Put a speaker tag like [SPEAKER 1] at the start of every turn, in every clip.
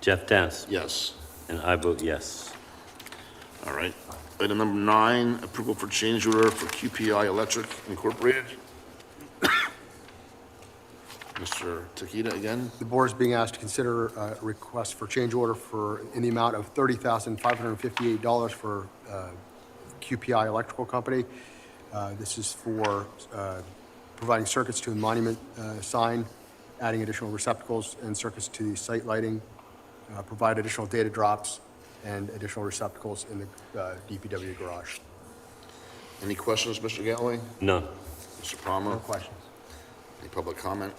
[SPEAKER 1] Jeff Dance,
[SPEAKER 2] Yes.
[SPEAKER 1] and I vote yes.
[SPEAKER 2] All right. Item number nine, approval for change order for QPI Electric Incorporated. Mr. Takita again?
[SPEAKER 3] The board is being asked to consider a request for change order for, in the amount of $30,558 for uh, QPI Electrical Company. Uh, This is for uh, providing circuits to a monument uh, sign, adding additional receptacles and circuits to the site lighting, uh, provide additional data drops and additional receptacles in the uh, DPW garage.
[SPEAKER 2] Any questions, Mr. Galloway?
[SPEAKER 1] None.
[SPEAKER 2] Mr. Palmer?
[SPEAKER 3] No questions?
[SPEAKER 2] Any public comment?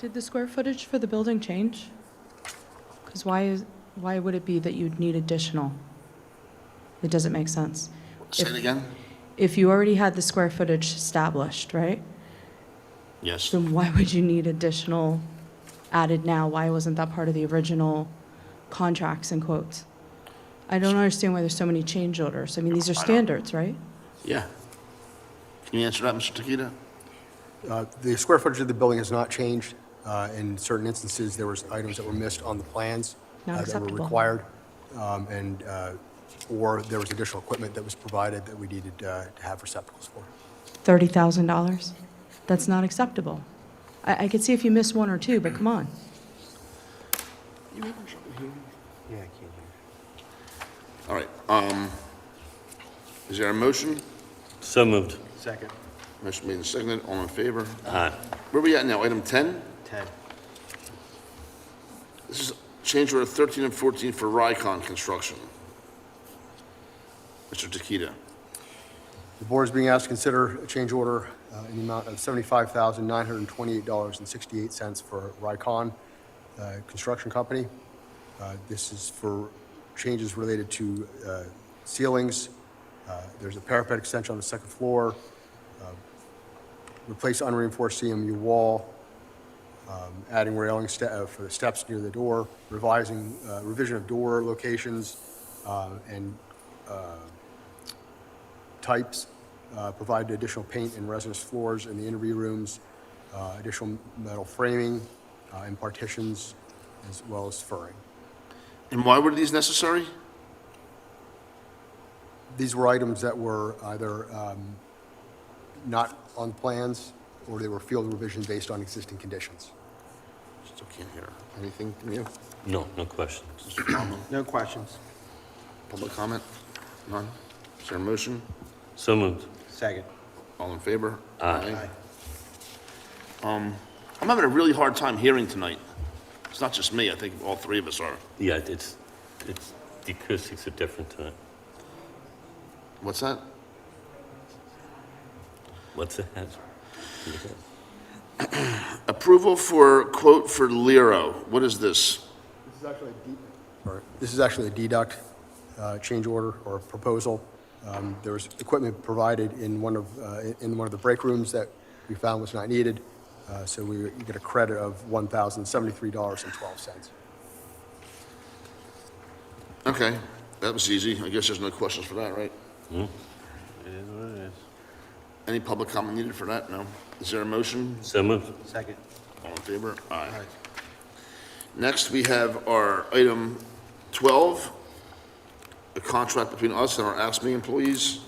[SPEAKER 4] Did the square footage for the building change? Because why is, why would it be that you'd need additional? It doesn't make sense.
[SPEAKER 2] Say it
[SPEAKER 4] If-
[SPEAKER 2] again?
[SPEAKER 4] If you already had the square footage established, right?
[SPEAKER 2] Yes.
[SPEAKER 4] Then why would you need additional added now? Why wasn't that part of the original contracts and quotes? I don't understand why there's so many change orders. I mean, these are standards, right?
[SPEAKER 2] Yeah. Can you answer that, Mr. Takita?
[SPEAKER 3] Uh, The square footage of the building has not changed. Uh, In certain instances, there was items that were missed on the plans.
[SPEAKER 4] Not
[SPEAKER 3] uh, That were
[SPEAKER 4] acceptable.
[SPEAKER 3] required, um, and, uh, or there was additional equipment that was provided that we needed uh, to have receptacles for.
[SPEAKER 4] $30,000? That's not acceptable. I, I could see if you miss one or two, but come on.
[SPEAKER 2] All right. Um, is there a motion?
[SPEAKER 1] So moved.
[SPEAKER 5] Second.
[SPEAKER 2] Motion made and seconded. All in favor?
[SPEAKER 1] Aye.
[SPEAKER 2] Where we at now? Item 10?
[SPEAKER 5] 10.
[SPEAKER 2] This is change order 13 and 14 for Rycon Construction. Mr. Takita?
[SPEAKER 3] The board is being asked to consider a change order uh, in the amount of $75,928.68 for Rycon uh, Construction Company. Uh, This is for changes related to uh, ceilings. Uh, There's a parapet extension on the second floor, uh, replace unreinforced CMU wall, um, adding railing ste- uh, for the steps near the door, revising, uh, revision of door locations, uh, and types, uh, provide additional paint and resinous floors in the interview rooms, uh, additional metal framing uh, and partitions, as well as furring.
[SPEAKER 2] And why were these necessary?
[SPEAKER 3] These were items that were either um, not on plans, or they were field revisions based on existing conditions.
[SPEAKER 2] Still can't hear. Anything from you?
[SPEAKER 1] No, no questions.
[SPEAKER 2] Mr. Palmer?
[SPEAKER 5] No questions.
[SPEAKER 2] Public comment? None? Is there a motion?
[SPEAKER 1] So moved.
[SPEAKER 5] Second.
[SPEAKER 2] All in favor? Um,
[SPEAKER 1] Aye.
[SPEAKER 2] I'm having a really hard time hearing tonight. It's not just me, I think all three of us are.
[SPEAKER 1] Yeah, it's, it's, the acoustics are different tonight.
[SPEAKER 2] What's that?
[SPEAKER 1] What's the hazard?
[SPEAKER 2] Approval for quote for Lero. What is this?
[SPEAKER 3] This is actually a This is actually a deduct uh, change order or proposal. Um, There was equipment provided in one of, uh, in one of the break rooms that we found was not needed, uh, so we get a credit of $1,073.12.
[SPEAKER 2] Okay, that was easy. I guess there's no questions for that, right?
[SPEAKER 5] It is what it is.
[SPEAKER 2] Any public comment needed for that? No? Is there a motion?
[SPEAKER 1] So moved.
[SPEAKER 5] Second.
[SPEAKER 2] All in favor? Aye. Next, we have our item 12, a contract between us and our ASME employees.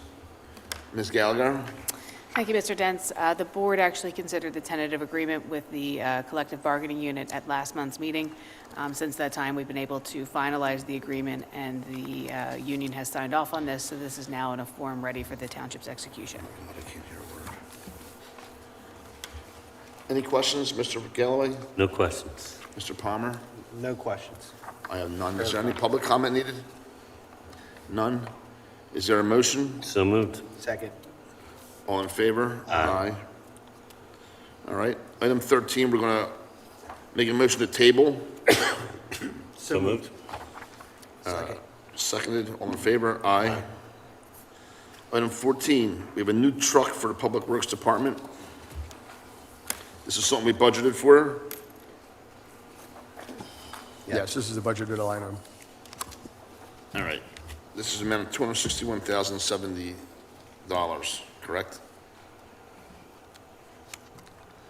[SPEAKER 2] Ms. Gallagher?
[SPEAKER 6] Thank you, Mr. Dents. Uh, The board actually considered the tentative agreement with the uh, collective bargaining unit at last month's meeting. Um, Since that time, we've been able to finalize the agreement, and the uh, union has signed off on this, so this is now in a form ready for the township's execution.
[SPEAKER 2] Any questions, Mr. Galloway,
[SPEAKER 1] No questions.
[SPEAKER 2] Mr. Palmer?
[SPEAKER 5] No questions.
[SPEAKER 2] I have none. Is there any public comment needed? None? Is there a motion?
[SPEAKER 1] So moved.
[SPEAKER 5] Second.
[SPEAKER 2] All in favor? Aye. All right. Item 13, we're going to make a motion to table.
[SPEAKER 1] So moved.
[SPEAKER 2] Seconded. All in favor? Aye. Item 14, we have a new truck for the Public Works Department. This is something we budgeted for.
[SPEAKER 3] Yes, this is a budgeted line item.
[SPEAKER 2] All right. This is an amount of $261,070, correct?